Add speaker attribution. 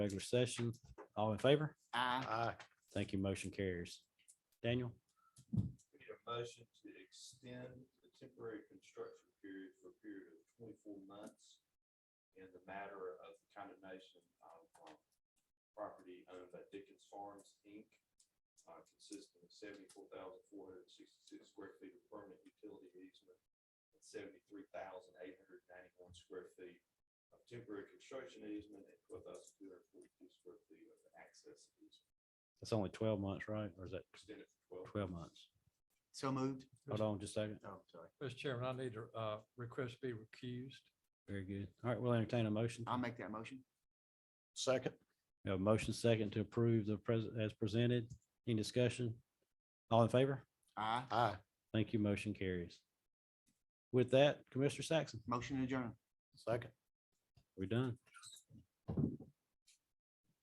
Speaker 1: regular session. All in favor?
Speaker 2: Aye.
Speaker 3: Aye.
Speaker 1: Thank you. Motion carries. Daniel,
Speaker 4: We need a motion to extend the temporary construction period for a period of twenty-four months in the matter of condemnation of um, property owned by Dickens Farms, Inc., uh, consisting of seventy-four thousand four hundred and sixty-six square feet of permanent utility easement and seventy-three thousand eight hundred ninety-one square feet of temporary construction easement and twelve thousand two hundred forty-two square feet of access easement,
Speaker 1: that's only twelve months, right? Or is that
Speaker 4: extended for twelve.
Speaker 1: twelve months?
Speaker 2: So moved.
Speaker 1: Hold on just a second.
Speaker 2: Oh, sorry.
Speaker 3: Mr. Chairman, I need to uh, request be recused.
Speaker 1: Very good. All right, we'll entertain a motion.
Speaker 2: I'll make that motion.
Speaker 3: Second.
Speaker 1: We have a motion second to approve the present as presented. Any discussion? All in favor?
Speaker 2: Aye.
Speaker 3: Aye.
Speaker 1: Thank you. Motion carries. With that, Commissioner Saxon,
Speaker 2: Motion adjourned.
Speaker 3: Second.
Speaker 1: we're done.